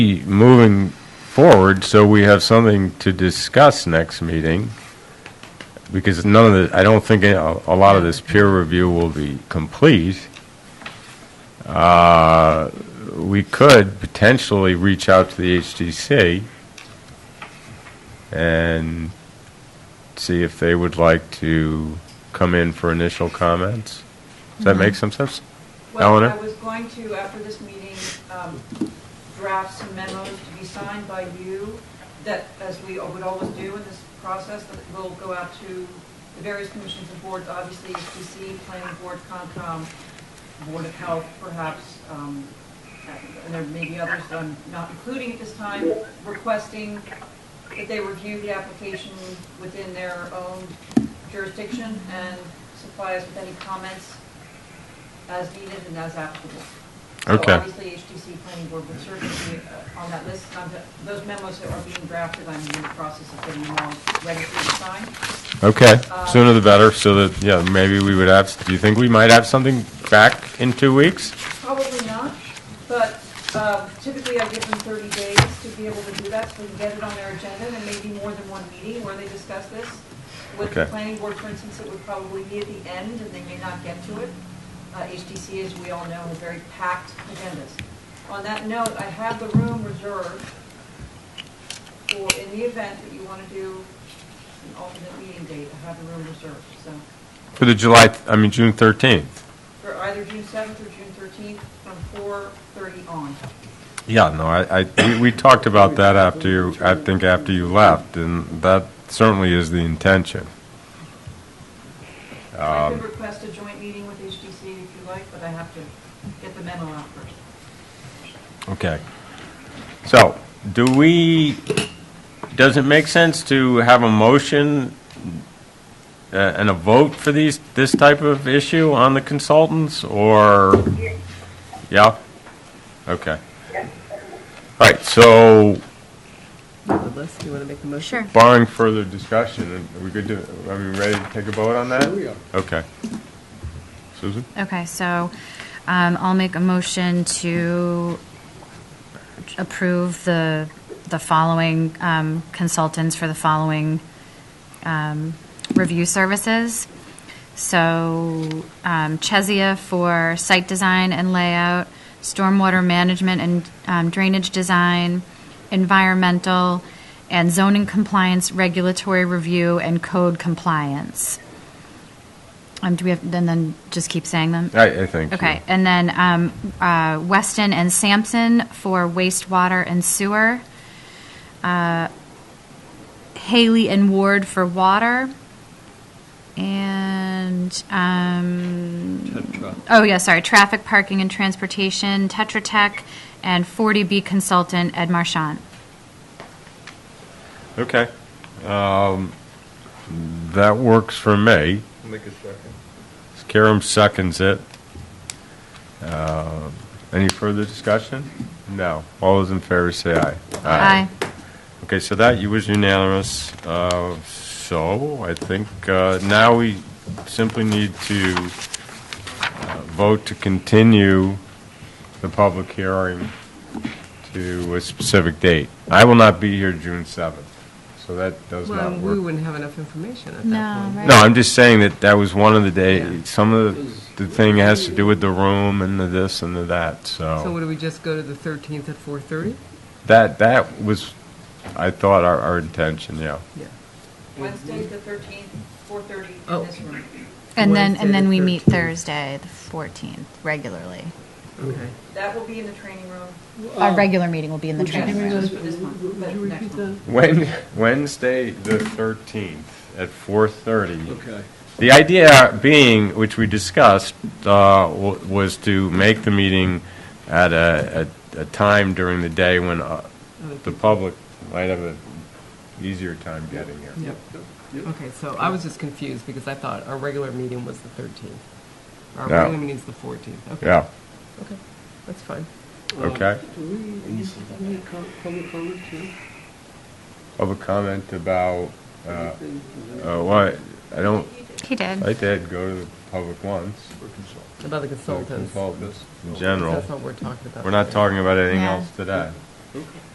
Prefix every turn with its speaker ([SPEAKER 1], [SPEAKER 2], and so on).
[SPEAKER 1] moving forward, so we have something to discuss next meeting, because none of the, I don't think a a lot of this peer review will be complete. Uh, We could potentially reach out to the HDC and see if they would like to come in for initial comments. Does that make some sense? Eleanor?
[SPEAKER 2] Well, I was going to, after this meeting, um, draft some memos to be signed by you that, as we would always do in this process, that will go out to the various commissions and boards, obviously, HDC, planning board, Concom, Board of Health, perhaps, um, and there may be others that I'm not including at this time, requesting that they review the application within their own jurisdiction and supply us with any comments as needed and as applicable. So
[SPEAKER 1] Okay.
[SPEAKER 2] Obviously, HTC Planning Board would certainly be uh, on that list. Um, the- Those memos that are being drafted, I'm in the process of getting them all ready for you to sign.
[SPEAKER 1] Okay, sooner the better, so that, yeah, maybe we would have, do you think we might have something back in two weeks?
[SPEAKER 2] Probably not, but um, typically I give them 30 days to be able to do that, so we can get it on their agenda, and maybe more than one meeting where they discuss this. With the
[SPEAKER 1] Okay.
[SPEAKER 2] planning board, for instance, it would probably be at the end, and they may not get to it. Uh, HTC, as we all know, has very packed agendas. On that note, I have the room reserved for, in the event that you want to do an alternate meeting date, I have the room reserved, so
[SPEAKER 1] For the July, I mean, June 13th?
[SPEAKER 2] for either June 7th or June 13th, from 4:30 on.
[SPEAKER 1] Yeah, no, I, I, we- we talked about that after you, I think after you left, and that certainly is the intention.
[SPEAKER 2] So I could request a joint meeting with HDC if you like, but I have to get the memo out first.
[SPEAKER 1] Okay. So, do we, does it make sense to have a motion uh, and a vote for these, this type of issue on the consultants, or? Yeah? Okay. All right, so
[SPEAKER 3] Unless you want to make the motion?
[SPEAKER 4] Sure.
[SPEAKER 1] barring further discussion, are we good to, are we ready to take a vote on that? we are. Okay. Susan?
[SPEAKER 4] Okay, so um, I'll make a motion to approve the, the following um, consultants for the following um, review services. So um, Chesia for site design and layout, stormwater management and um, drainage design, environmental, and zoning compliance, regulatory review, and code compliance. Um, do we have, then, then just keep saying them?
[SPEAKER 1] I, I think.
[SPEAKER 4] Okay, and then um, uh, Weston and Sampson for wastewater and sewer. Uh, Haley and Ward for water. And, um, oh yeah, sorry, traffic, parking, and transportation, Tetra Tech, and 40B consultant Ed Marchand.
[SPEAKER 1] Okay. Um, That works for me.
[SPEAKER 5] Make a second.
[SPEAKER 1] Karam seconds it. Uh, Any further discussion? No. All those in favor say aye. Okay, so that you was unanimous. Uh, So I think uh, now we simply need to uh, vote to continue the public hearing to a specific date. I will not be here June 7th, so that does
[SPEAKER 3] Well,
[SPEAKER 1] not
[SPEAKER 3] we
[SPEAKER 1] work.
[SPEAKER 3] wouldn't have enough information at
[SPEAKER 4] No,
[SPEAKER 3] that point.
[SPEAKER 4] right.
[SPEAKER 1] No, I'm just saying that that was one of the
[SPEAKER 3] Yeah.
[SPEAKER 1] day, some of the, the thing has to do with the room and the this and the that,
[SPEAKER 3] So
[SPEAKER 1] so.
[SPEAKER 3] would we just go to the 13th at 4:30?
[SPEAKER 1] That, that was, I thought, our, our intention, yeah.
[SPEAKER 3] Yeah.
[SPEAKER 4] Mm-hmm.
[SPEAKER 2] Wednesday, the 13th, 4:30
[SPEAKER 3] Oh.
[SPEAKER 2] in this room.
[SPEAKER 4] And then, and then we meet
[SPEAKER 3] Wednesday the
[SPEAKER 4] Thursday, the 14th, regularly.
[SPEAKER 3] Okay.
[SPEAKER 2] That will be in the training room.
[SPEAKER 4] Our regular meeting will be in the
[SPEAKER 2] Would you-
[SPEAKER 4] training room.
[SPEAKER 2] Just for this month, but next month.
[SPEAKER 1] Wen- Wednesday, the 13th, at 4:30.
[SPEAKER 5] Okay.
[SPEAKER 1] The idea being, which we discussed, uh, wa- was to make the meeting at a, a a time during the day when uh, the public might have an easier time getting here.
[SPEAKER 3] Yep. Okay, so I was just confused because I thought our regular meeting was the 13th. Our
[SPEAKER 1] No.
[SPEAKER 3] regular meeting's the 14th. Okay.
[SPEAKER 1] Yeah,
[SPEAKER 3] Okay, that's fine.
[SPEAKER 1] okay.
[SPEAKER 6] Do Uh, we, is there public comment too?
[SPEAKER 1] Public comment about, uh,
[SPEAKER 6] Anything?
[SPEAKER 1] uh, what, I don't,
[SPEAKER 4] He did.
[SPEAKER 1] I did go to the public once.
[SPEAKER 3] About the
[SPEAKER 1] so
[SPEAKER 3] consultants.
[SPEAKER 1] Consultants, in
[SPEAKER 3] That's
[SPEAKER 1] general.
[SPEAKER 3] not what we're talking about.
[SPEAKER 1] We're not
[SPEAKER 3] today.
[SPEAKER 1] talking about anything
[SPEAKER 4] Yeah.
[SPEAKER 1] else today.
[SPEAKER 6] Okay.